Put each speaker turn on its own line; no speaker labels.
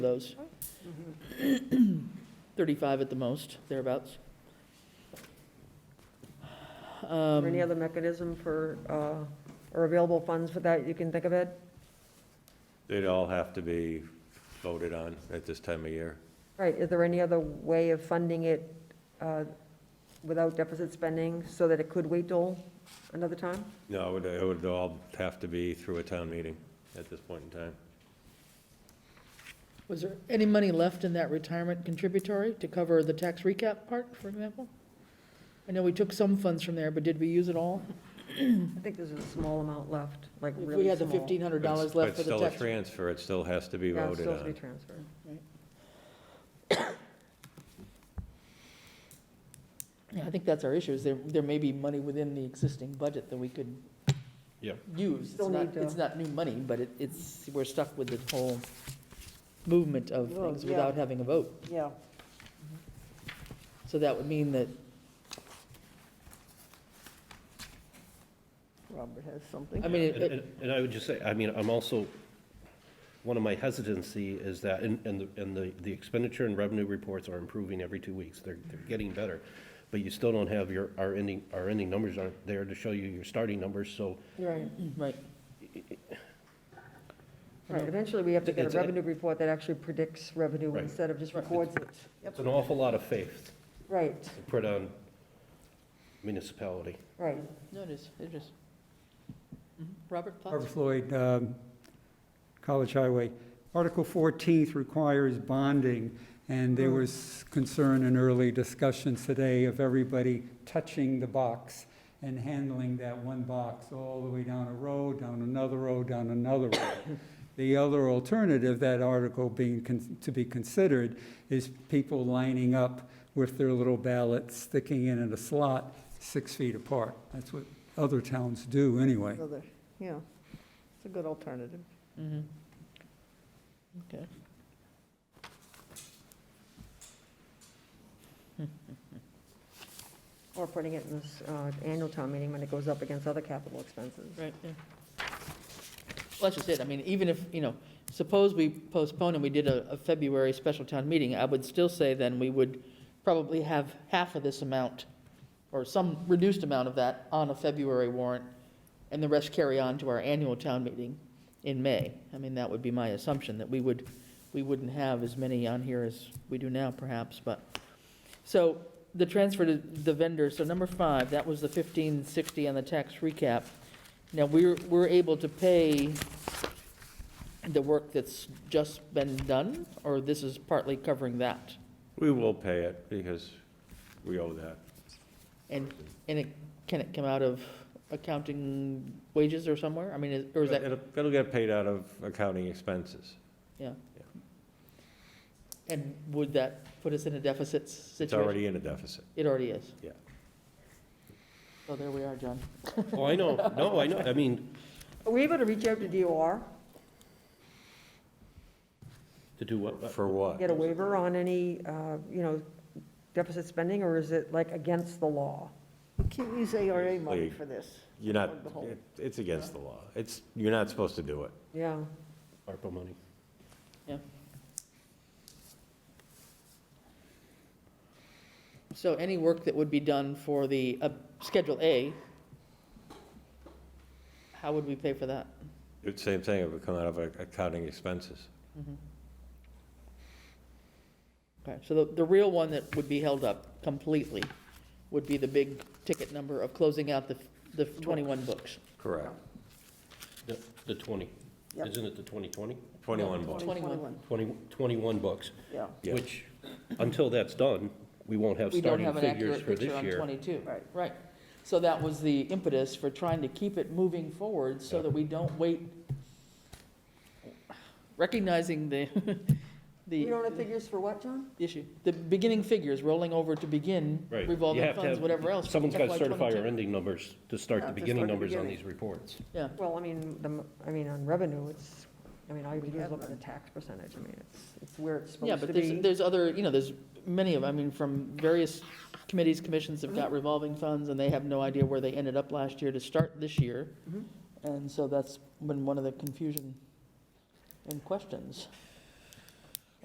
those. 35 at the most, thereabouts.
Or
Um,
any other mechanism for, uh, or available funds for that you can think of, Ed?
They'd all have to be voted on at this time of year.
Right, is there any other way of funding it uh, without deficit spending so that it could wait till another time?
No, it would, it would all have to be through a town meeting at this point in time.
Was there any money left in that retirement contributory to cover the tax recap part, for example? I know we took some funds from there, but did we use it all?
I think there's a small amount left, like
If
really small.
we had the $1,500 left for
It's
the
still a
tax.
transfer, it still has to be
Yeah, it's
voted
still to be
on.
transferred.
Yeah, I think that's our issue, is there, there may be money within the existing budget that we could
Yep.
use. It's
Still
not,
need to-
it's not new money, but it- it's, we're stuck with this whole movement of
Well,
things
yeah.
without having a vote.
Yeah,
So that would mean that
Robert has something.
I mean, it-
And- And and I would just say, I mean, I'm also, one of my hesitancy is that, and, and the- and the, the expenditure and revenue reports are improving every two weeks. They're, they're getting better. But you still don't have your, our ending, our ending numbers aren't there to show you your starting numbers, so
Right.
Right,
Right, eventually we have to get
It's
a
a-
revenue report that actually predicts revenue
Right.
instead of just records it.
it's an awful lot of faith
Right,
to put on municipality.
right.
no, it is, it is. Mhm. Robert,
Barbara
thoughts?
Floyd, um, College Highway. Article 14th requires bonding, and there was concern in early discussions today of everybody touching the box and handling that one box all the way down a road, down another road, down another road. The other alternative, that article being, con- to be considered, is people lining up with their little ballots sticking in in a slot six feet apart. That's what other towns do anyway.
Another, yeah, it's a good alternative.
Mhm. Okay.
Or putting it in this uh, annual town meeting when it goes up against other capital expenses.
Right, yeah. Well, that's just it, I mean, even if, you know, suppose we postpone and we did a, a February special town meeting, I would still say then we would probably have half of this amount, or some reduced amount of that, on a February warrant, and the rest carry on to our annual town meeting in May. I mean, that would be my assumption, that we would, we wouldn't have as many on here as we do now perhaps, but. So, the transfer to the vendor, so number five, that was the fifteen sixty on the tax recap. Now, we're, we're able to pay the work that's just been done, or this is partly covering that?
We will pay it because we owe that.
And, and it, can it come out of accounting wages or somewhere? I mean, is- or is that,
It'll, it'll get paid out of accounting expenses.
yeah? And would that put us in a deficit situation?
It's already in a deficit.
It already is?
Yeah.
So there we are, John.
Oh, I know, no, I know, I mean,
Are we able to reach out to DOR,
to do what?
For what?
get a waiver on any, uh, you know, deficit spending, or is it like against the law?
We can't use ARA money
Basically,
for this.
You're not,
Plug the hole.
it- it's against the law. It's, you're not supposed to do it.
Yeah,
ARPA money.
So any work that would be done for the, uh, Schedule A, how would we pay for that?
It's same thing, it would come out of accounting expenses.
Mm-hmm. Okay, so the, the real one that would be held up completely would be the big ticket number of closing out the, the 21 books.
Correct.
The, the 20,
Yep.
isn't it the 2020?
21 bucks.
21.
20, 21 bucks,
Yeah,
Yeah.
which, until that's done, we won't have
We don't
starting
have an
figures
accurate
for
picture
this
on
year.
22.
Right.
Right. So that was the impetus for trying to keep it moving forward so
Yeah.
that we don't wait, recognizing the,
you don't
the
have figures for what, John?
issue, the beginning figures rolling over to begin
Right. You
revolving
have to
funds,
have-
whatever else.
Someone's got to
FY
certify
22.
our ending numbers to start
Yeah,
the
to
beginning
start the
numbers on
beginning.
these reports.
Yeah.
Well, I mean, the, m- I mean, on revenue, it's, I mean, all you
We
can do is
have
look at the
none.
tax percentage, I mean, it's, it's where it's
Yeah,
supposed to
but there's,
be.
there's other, you know, there's many of, I mean, from various committees, commissions have got revolving funds, and they have no idea where they ended up last year to start this year.
Mhm.
And so that's been one of the confusion and questions.